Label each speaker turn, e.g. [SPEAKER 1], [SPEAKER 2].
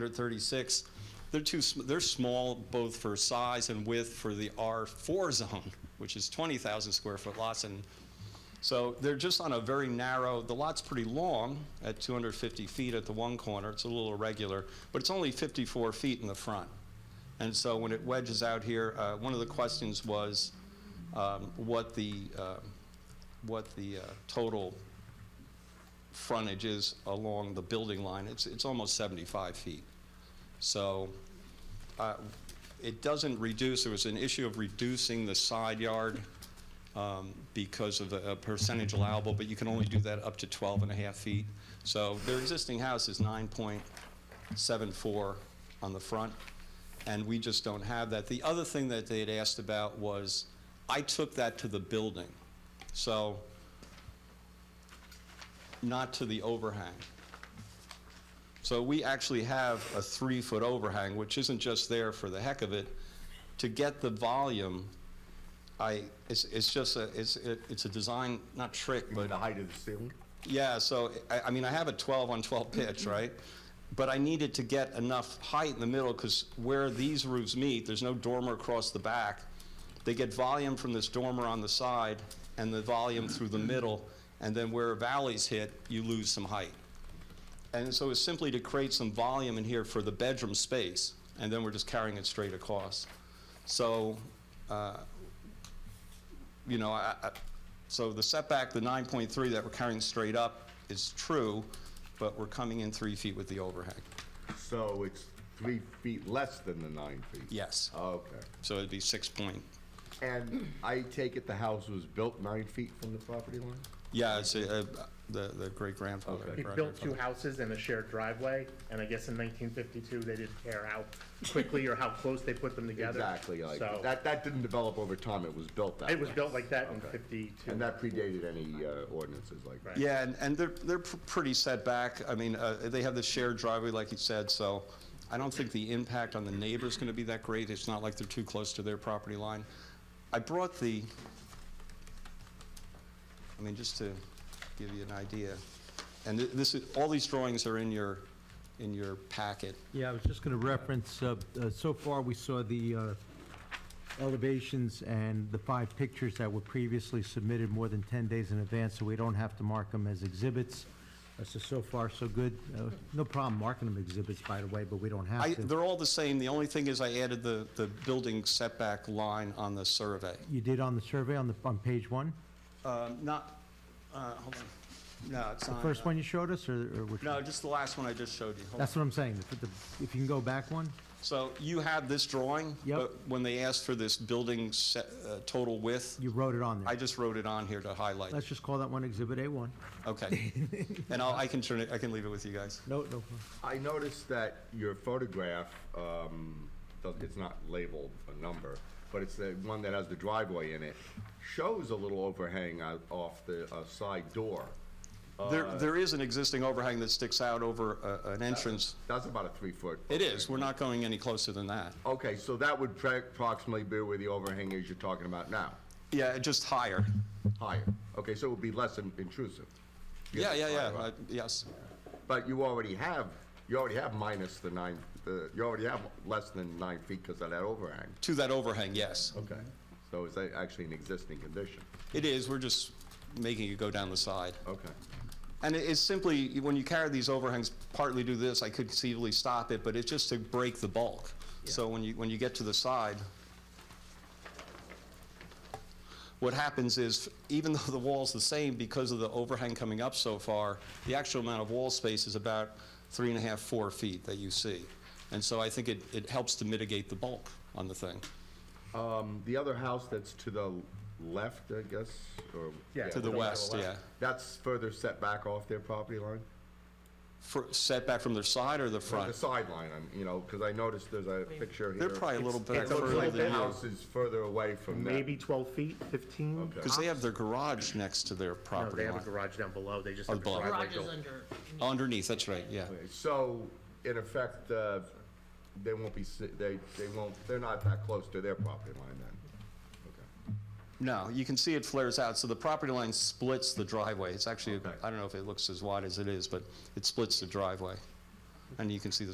[SPEAKER 1] 136. They're too, sm- they're small both for size and width for the R4 zone, which is 20,000 square foot lots. And so they're just on a very narrow, the lot's pretty long at 250 feet at the one corner. It's a little irregular, but it's only 54 feet in the front. And so when it wedges out here, uh, one of the questions was um, what the, uh, what the uh, total frontage is along the building line. It's, it's almost 75 feet. So uh, it doesn't reduce, there was an issue of reducing the side yard um, because of a a percentage allowable, but you can only do that up to 12 and a half feet. So their existing house is 9.74 on the front, and we just don't have that. The other thing that they had asked about was, I took that to the building, so not to the overhang. So we actually have a three-foot overhang, which isn't just there for the heck of it. To get the volume, I, it's, it's just a, it's, it- it's a design, not trick, but,
[SPEAKER 2] the height of the ceiling?
[SPEAKER 1] yeah, so, I, I mean, I have a 12 on 12 pitch, right? But I needed to get enough height in the middle, because where these roofs meet, there's no dormer across the back. They get volume from this dormer on the side, and the volume through the middle, and then where valleys hit, you lose some height. And so it's simply to create some volume in here for the bedroom space, and then we're just carrying it straight across. So, uh, you know, I, I- so the setback, the 9.3 that we're carrying straight up is true, but we're coming in three feet with the overhang.
[SPEAKER 2] So it's three feet less than the nine feet? Oh,
[SPEAKER 1] Yes.
[SPEAKER 2] Okay.
[SPEAKER 1] So it'd be 6 point,
[SPEAKER 2] And I take it the house was built nine feet from the property line?
[SPEAKER 1] yeah, it's uh, the the great-grandfather.
[SPEAKER 2] Okay.
[SPEAKER 3] He built two houses and a shared driveway, and I guess in 1952, they didn't care how quickly or how close they put them together.
[SPEAKER 2] Exactly, like,
[SPEAKER 3] So,
[SPEAKER 2] that, that didn't develop over time, it was built that way.
[SPEAKER 3] it was built like that in
[SPEAKER 2] Okay.
[SPEAKER 3] 52.
[SPEAKER 2] And that predated any uh, ordinances like that?
[SPEAKER 3] Right.
[SPEAKER 1] Yeah, and, and they're, they're pr- pretty set back. I mean, uh, they have the shared driveway, like you said, so I don't think the impact on the neighbor's gonna be that great. It's not like they're too close to their property line. I brought the, I mean, just to give you an idea, and thi- this is, all these drawings are in your, in your packet.
[SPEAKER 4] Yeah, I was just going to reference, uh, uh, so far, we saw the uh, elevations and the five pictures that were previously submitted more than 10 days in advance, so we don't have to mark them as exhibits. Uh, So, so far, so good. Uh, No problem marking them exhibits, by the way, but we don't
[SPEAKER 1] I,
[SPEAKER 4] have to.
[SPEAKER 1] they're all the same, the only thing is I added the, the building setback line on the survey.
[SPEAKER 4] You did on the survey on the, on page one?
[SPEAKER 1] Um, Not, uh, hold on, no, it's
[SPEAKER 4] The
[SPEAKER 1] not. uh,
[SPEAKER 4] first one you showed us, or or which?
[SPEAKER 1] No,
[SPEAKER 4] one?
[SPEAKER 1] just the last one I just showed you. Hold on.
[SPEAKER 4] That's what I'm saying. If the- If you can go back one?
[SPEAKER 1] So you have this drawing?
[SPEAKER 4] Yep.
[SPEAKER 1] But when they asked for this building se- uh, total width,
[SPEAKER 4] You wrote it on
[SPEAKER 1] I
[SPEAKER 4] there.
[SPEAKER 1] just wrote it on here to highlight.
[SPEAKER 4] Let's just call that one Exhibit A1.
[SPEAKER 1] Okay. And I'll, I can turn it, I can leave it with you guys.
[SPEAKER 4] No, no.
[SPEAKER 2] I noticed that your photograph, um, does- it's not labeled a number, but it's the one that has the driveway in it, shows a little overhang out off the uh, side door.
[SPEAKER 1] There, there is an existing overhang that sticks out over a- an entrance.
[SPEAKER 2] That's about a three-foot.
[SPEAKER 1] It is, we're not going any closer than that.
[SPEAKER 2] Okay, so that would pra- approximately be where the overhang is you're talking about now,
[SPEAKER 1] Yeah, just higher.
[SPEAKER 2] higher. Okay, so it would be less in- intrusive.
[SPEAKER 1] Yeah, yeah, yeah,
[SPEAKER 2] higher
[SPEAKER 1] uh,
[SPEAKER 2] up.
[SPEAKER 1] yes.
[SPEAKER 2] But you already have, you already have minus the nine, the- you already have less than nine feet because of that overhang.
[SPEAKER 1] To that overhang, yes.
[SPEAKER 2] Okay. So is that actually an existing condition?
[SPEAKER 1] It is, we're just making it go down the side.
[SPEAKER 2] Okay.
[SPEAKER 1] And it- it's simply, when you carry these overhangs, partly do this, I could conceivably stop it, but it's just to break the bulk. So when you, when you get to the side, what happens is, even though the wall's the same, because of the overhang coming up so far, the actual amount of wall space is about three and a half, four feet that you see. And so I think it, it helps to mitigate the bulk on the thing.
[SPEAKER 2] Um, the other house that's to the left, I guess, or?
[SPEAKER 3] Yeah,
[SPEAKER 1] To the
[SPEAKER 3] Going to the
[SPEAKER 1] west, yeah.
[SPEAKER 3] left.
[SPEAKER 2] That's further set back off their property line?
[SPEAKER 1] For, setback from their side or the
[SPEAKER 2] From The
[SPEAKER 1] front?
[SPEAKER 2] sideline, I'm, you know, because I noticed there's a picture here.
[SPEAKER 1] They're probably a little bit
[SPEAKER 3] it's a
[SPEAKER 2] So it's
[SPEAKER 1] further
[SPEAKER 2] like the
[SPEAKER 1] than you.
[SPEAKER 2] house is further away from that.
[SPEAKER 3] Maybe 12 feet, 15?
[SPEAKER 2] Okay.
[SPEAKER 1] Because they have their garage next to their
[SPEAKER 3] No,
[SPEAKER 1] property
[SPEAKER 3] they have a
[SPEAKER 1] line.
[SPEAKER 3] garage down below, they just
[SPEAKER 1] Oh,
[SPEAKER 3] have a
[SPEAKER 1] below.
[SPEAKER 3] driveway
[SPEAKER 5] Garage is
[SPEAKER 3] built.
[SPEAKER 5] under.
[SPEAKER 1] Underneath, that's right, yeah.
[SPEAKER 3] Oh,
[SPEAKER 2] So, in effect, uh, they won't be, si- they, they won't, they're not that close to their property line then?
[SPEAKER 1] No, you can see it flares out, so the property line splits the driveway. It's actually,
[SPEAKER 2] Okay.
[SPEAKER 1] I don't know if it looks as wide as it is, but it splits the driveway. And you can see the